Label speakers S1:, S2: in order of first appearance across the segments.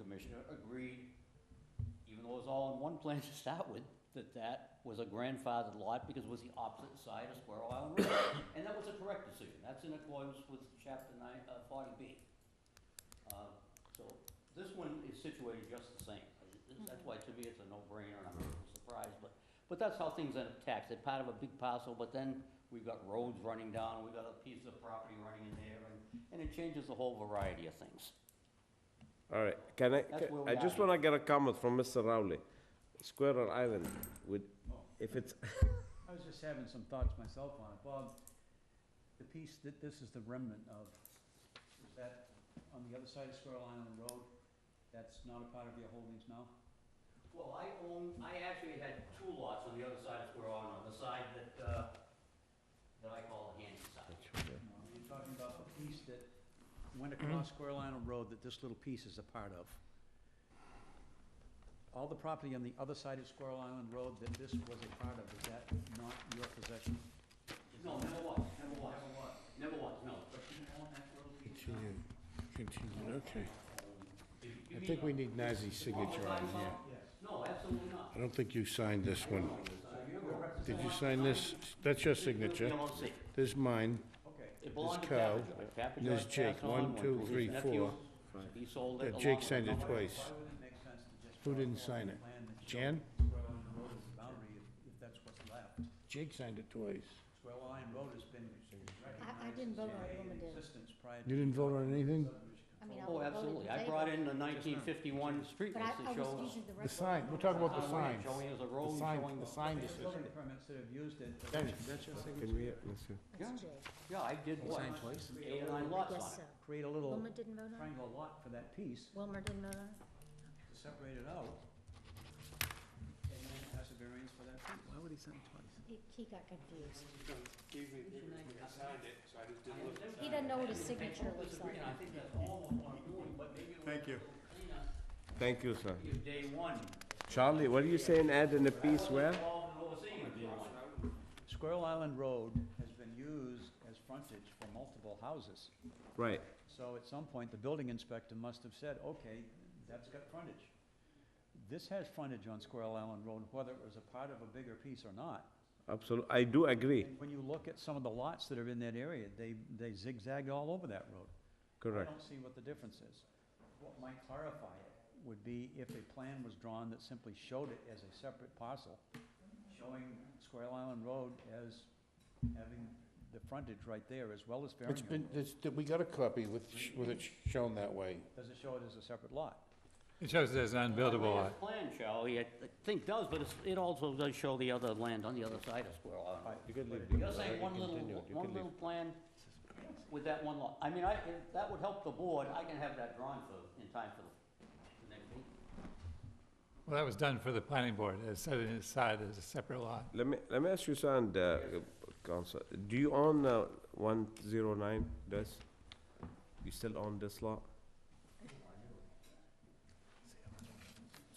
S1: commissioner agreed, even though it was all in one plan to start with, that that was a grandfathered lot because it was the opposite side of Squirrel Island Road. And that was a correct decision. That's in accordance with chapter nine, uh, forty B. Uh, So this one is situated just the same. That's why to me it's a no-brainer and I'm a little surprised, but, but that's how things end up taxed. They're part of a big parcel, but then we've got roads running down, we've got a piece of property running in there and, and it changes the whole variety of things.
S2: All right, can I,
S1: That's where we
S2: I
S1: are
S2: just
S1: here.
S2: want to get a comment from Mr. Rowley. Squirrel Island, would, if it's,
S3: I was just having some thoughts myself on it. Bob, the piece that this is the remnant of, is that on the other side of Squirrel Island Road? That's not a part of your holdings now?
S1: Well, I own, I actually had two lots on the other side of Square Island, on the side that, uh, that I call the handy side.
S3: No, You're talking about the piece that went across Squirrel Island Road that this little piece is a part of. All the property on the other side of Squirrel Island Road that this was a part of, is that not your possession?
S1: No, never was, never was. Never was. Never was, no. But you own that little piece now?
S4: Continue, continue, okay.
S1: You- you
S4: I
S1: mean
S4: think we
S1: the-
S4: need Nazi's
S1: the proper
S4: signature on
S1: size
S4: here.
S1: lot? No, absolutely not.
S4: I don't think you signed this one. Did you sign this? That's your signature.
S1: LLC.
S4: This is mine.
S3: Okay.
S1: It belonged to
S4: Cow,
S1: Papajoy. Papajoy
S4: there's Jake,
S1: passed on,
S4: one, two,
S1: to his
S4: three,
S1: nephew.
S4: four.
S1: He sold it
S4: Yeah,
S1: along.
S4: Jake
S1: with
S4: signed it
S1: another-
S4: twice.
S3: Why would it make sense to just?
S4: Who
S3: draw
S4: didn't
S3: a
S4: sign it?
S3: plan that shows
S4: Jan?
S3: Squirrel Island Road is the boundary, if- if that's what's left.
S4: Jake signed it twice.
S3: Squirrel Island Road has been
S5: I
S3: recognized
S5: didn't
S3: as
S5: vote on
S3: a
S5: it, woman did.
S3: existence prior to.
S4: You didn't vote on anything?
S3: subdivision
S5: I mean,
S3: control.
S5: I
S1: Oh,
S5: voted in
S1: absolutely. I
S5: favor,
S1: brought in the nineteen fifty-one street
S5: But
S1: list
S5: I, I
S1: that
S5: was
S1: shows.
S5: using the
S4: The
S5: record.
S4: sign, we're talking about the
S1: Highway,
S4: signs.
S1: showing as a road,
S4: The sign,
S1: showing-
S4: the sign
S3: There's building
S4: decision.
S3: permits that have used it. but-
S4: That's your signature.
S5: That's Jay.
S1: Yeah, I did what? Signed twice? Eight or nine lots
S5: Yes,
S1: on
S5: sir.
S1: it.
S3: Create a little
S5: Wilma didn't vote on it?
S3: triangle lot for that piece
S5: Wilmer didn't vote on it?
S3: to separate it out. And then pass a variance for that piece. Why would he sign twice?
S5: He, he got confused.
S1: I signed it, so I just didn't.
S5: He doesn't know what his signature looks like.
S1: I think that's almost what I'm doing, but maybe it
S4: Thank you.
S2: thank you, sir.
S1: was day one.
S2: Charlie, what are you saying, add in a piece where?
S1: Involved in overseeing it, day one.
S3: Squirrel Island Road has been used as frontage for multiple houses.
S2: Right,
S3: So at some point, the building inspector must have said, okay, that's got frontage. This has frontage on Squirrel Island Road, whether it was a part of a bigger piece or not.
S2: absolutely, I do agree,
S3: And when you look at some of the lots that are in that area, they, they zigzagged all over that road. I
S2: correct.
S3: don't see what the difference is. What might clarify it would be if a plan was drawn that simply showed it as a separate parcel, showing Squirrel Island Road as having the frontage right there as well as
S4: It's
S3: Farringham.
S4: been, it's, we got a copy with, sh- with it shown that way.
S3: Does it show it as a separate lot?
S6: It shows there's an unbuildable
S1: Well,
S6: lot.
S1: his Plan, Charlie, I think does, but it's- it also does show the other land on the other side of Squirrel Island.
S3: Right.
S2: You could leave
S1: You're
S2: it.
S1: saying one little,
S2: Continue. You
S1: one
S2: can
S1: little plan with that one lot. I mean, I, if that would help the board, I can have that drawn for, in time for the- the next meeting.
S6: Well, that was done for the planning board, it set it aside as a separate lot.
S2: Let me, let me ask you something, uh, Council, do you own uh, 109 this? You still own this lot?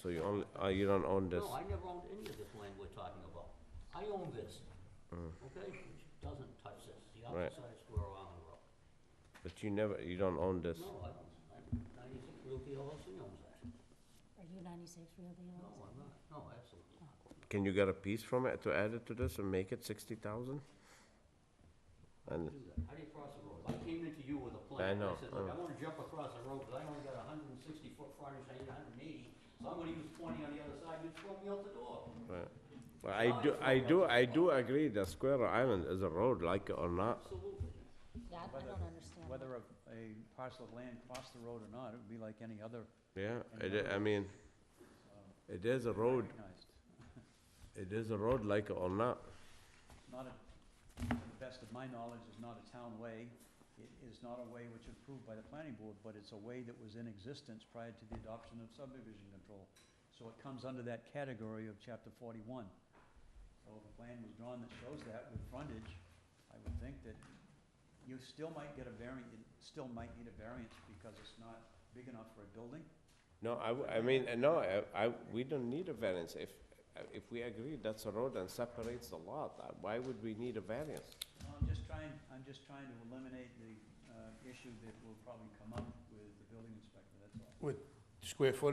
S2: So you only, uh, you don't own this?
S1: No, I never owned any of this land we're talking about. I own this, okay? Which doesn't touch this, the
S2: Right.
S1: opposite side of Squirrel Island Road.
S2: But you never, you don't own this?
S1: No, I don't, I- 96 Realty LLC owns that.
S5: Are you ninety-six real
S1: No,
S5: deal?
S1: I'm not, no, absolutely not.
S2: Can you get a piece from it to add it to this and make it 60,000? And,
S1: do that. How do you cross the road? I came into you with a
S2: I
S1: plan.
S2: know,
S1: I said, look,
S2: uh.
S1: I wanna jump across the road, but I only got hundred and sixty foot frontage, I need hundred and eighty, so I'm gonna use twenty on the other side, you throw me out the door.
S2: right. Well, uh, I do, I do, I do agree that Square Island is a road, like it or not.
S1: Absolutely.
S5: Yeah, I I
S3: Whether-
S5: don't understand.
S3: Whether a, a parcel of land crossed the road or not, it would be like any other um,
S2: Yeah, it, I mean, it is a road,
S3: recognized.
S2: it is a road, like it or not.
S3: Not a, to the best of my knowledge, is not a town way. It is not a way which is approved by the planning board, but it's a way that was in existence prior to the adoption of subdivision control. So it comes under that category of chapter forty-one. So if a plan was drawn that shows that with frontage, I would think that you still might get a variant, you still might need a variance because it's not big enough for a building.
S2: No, I, w- I mean, uh, no, I, I, we don't need a variance. If, if we agree that's a road and separates the lot, uh, why would we need a variance?
S3: No, I'm just trying, I'm just trying to eliminate the uh, issue that will probably come up with the building inspector, that's all.
S4: With square footage